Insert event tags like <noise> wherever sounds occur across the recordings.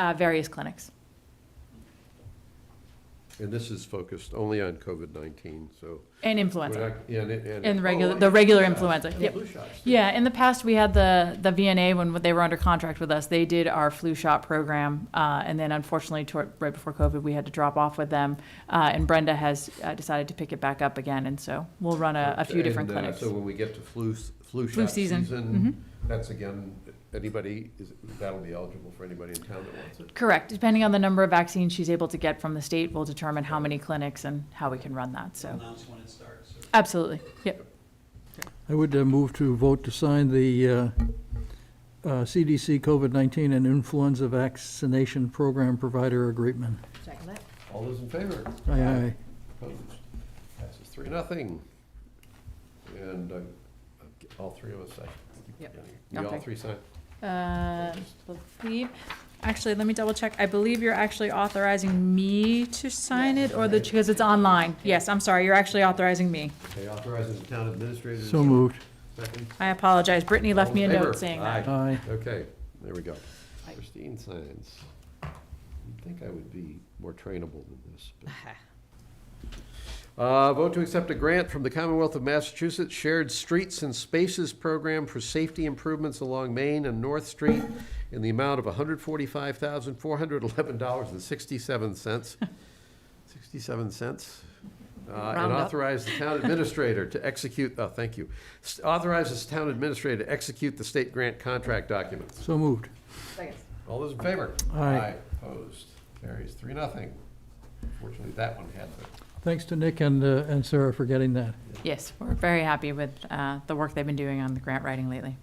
uh, various clinics. And this is focused only on COVID-19, so. And we're influenza, not- yeah, And, it- and. and it- regular, oh, the regular yeah, influenza, and the yep. flu shots, too. Yeah, in the past, we had the, the VNA when they were under contract with us, they did our flu shot program. Uh, and then unfortunately, toward, right before COVID, we had to drop off with them. Uh, and Brenda has uh, decided to pick it back up again, and so we'll run a, a few And, different uh, clinics. So when we get to flu, s- flu shot season, Mm-hmm. season, that's again, anybody, is, that'll be eligible for anybody in town that wants it. Correct, depending on the number of vaccines she's able to get from the state, we'll determine how many clinics and how we can run that, so. Announce when it starts. or- Absolutely, yep, I would uh, move to vote to sign the uh, uh, CDC COVID-19 and influenza vaccination program provider agreement. Second that. All those in favor? Aye, aye. Opposed? Passes three, nothing. And, uh, all three of us, I. Yep. We all Okay. three sign. Uh, believe, actually, let me double check. I believe you're actually authorizing me to sign it or the, because it's online. Yes, I'm sorry, you're actually authorizing me. Okay, authorizes the town administrator. to- So moved. Second. I apologize. Brittany left All me a in favor? note saying that. Aye. Aye. Okay, there we go. Christine signs. You'd think I would be more trainable than this. <laughs> but- Uh, vote to accept a grant from the Commonwealth of Massachusetts Shared Streets and Spaces Program for safety improvements along Main and North Street in the amount of hundred forty-five thousand, four hundred eleven dollars and <laughs> sixty-seven cents. Sixty-seven cents. Uh, and Round up. authorize the <laughs> town administrator to execute, oh, thank you. S- Authorizes town administrator to execute the state grant contract documents. So moved. Second. All those in favor? Aye. Opposed? Carries three, nothing. Fortunately, that one had the. Thanks to Nick and, uh, and Sarah for getting that. Yes, we're very happy with, uh, the work they've been doing on the grant writing lately.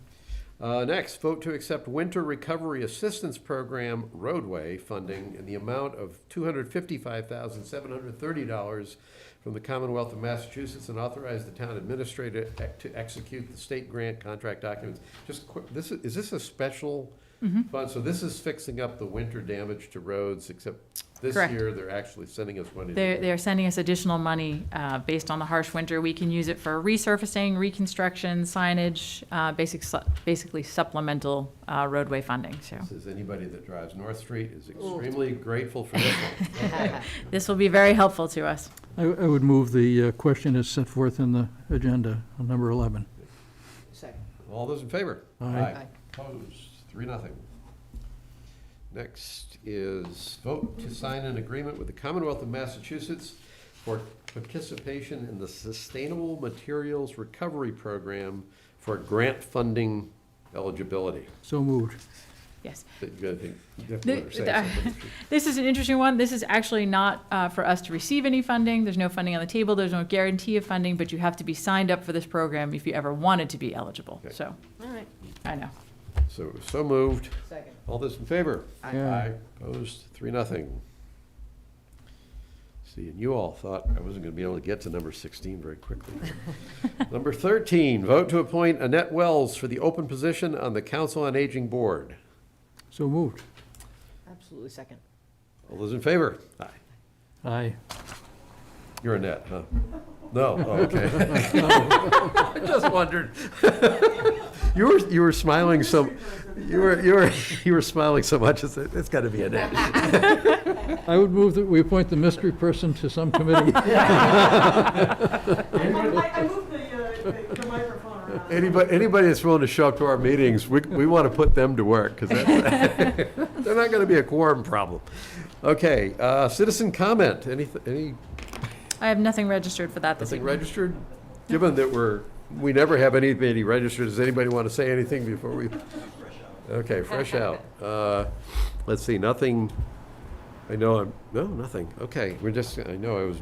Uh, next, vote to accept Winter Recovery Assistance Program roadway funding in the amount of two hundred fifty-five thousand, seven hundred thirty dollars from the Commonwealth of Massachusetts and authorize the town administrator ec- to execute the state grant contract documents. Just quick, this, is is this a special Mm-hmm. fund? So this is fixing up the winter damage to roads, except this Correct. year, they're actually sending us money. to They're, do they're sending us additional money uh, based on the harsh winter. We can use it for resurfacing, reconstruction, signage, uh, basic, su- basically supplemental uh, roadway funding, so. Says anybody that drives North Street is extremely grateful for this one. This will be very helpful to us. I, I would move the uh, question as set forth in the agenda, on number 11. Second. All those in favor? Aye. Aye. Opposed, three, nothing. Next is vote to sign an agreement with the Commonwealth of Massachusetts for participation in the Sustainable Materials Recovery Program for grant funding eligibility. So moved. Yes. That you gotta think- you have to let her say The- something. This is an interesting one. This is actually not uh, for us to receive any funding. There's no funding on the table. There's no guarantee of funding, but you have to be signed up for this program if you ever wanted to be eligible. Okay. So, All right. I know. So, so moved. Second. All those in favor? Aye. Yeah. Opposed, three, nothing. See, and you all thought I wasn't gonna be able to get to number sixteen very quickly. Number thirteen, vote to appoint Annette Wells for the open position on the Council on Aging Board. So moved. Absolutely second. All those in favor? Aye. Aye. You're Annette, huh? No, oh, okay. I just wondered. You were, you were smiling so, you were, you were, you were smiling so much, it's, it's gotta be Annette. I would move that we appoint the mystery person to <laughs> some committee. I, I moved the, uh, the- the microphone around. Anybody, anybody that's willing to show up to our meetings, we, we want to put them to work, because <laughs> they're not going to be a quorum problem. Okay, uh, citizen comment, any, any, I have nothing registered for that this nothing evening. registered? Given that we're, we never have anybody registered, does anybody want to say anything before we? Okay, fresh out. Uh, Let's see, nothing, I know I'm, no, nothing, okay, we're just, I know I was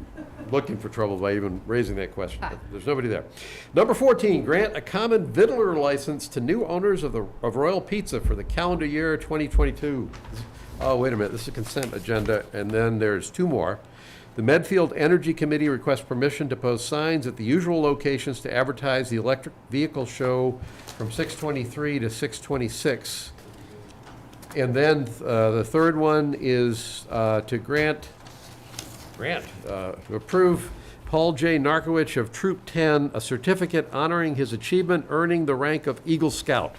looking for trouble by even raising that question, but there's nobody there. Number fourteen, grant a common vittler license to new owners of the, of Royal Pizza for the calendar year twenty twenty-two. Oh, wait a minute, this is a consent agenda, and then there's two more. The Medfield Energy Committee requests permission to post signs at the usual locations to advertise the electric vehicle show from six twenty-three to six twenty-six. And then uh, the third one is uh, to grant, grant, uh, approve Paul J. Narkowicz of Troop 10 a certificate honoring his achievement earning the rank of Eagle Scout.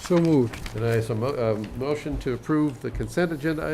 So moved. And I, so mo- um, motion to uh, approve the consent agenda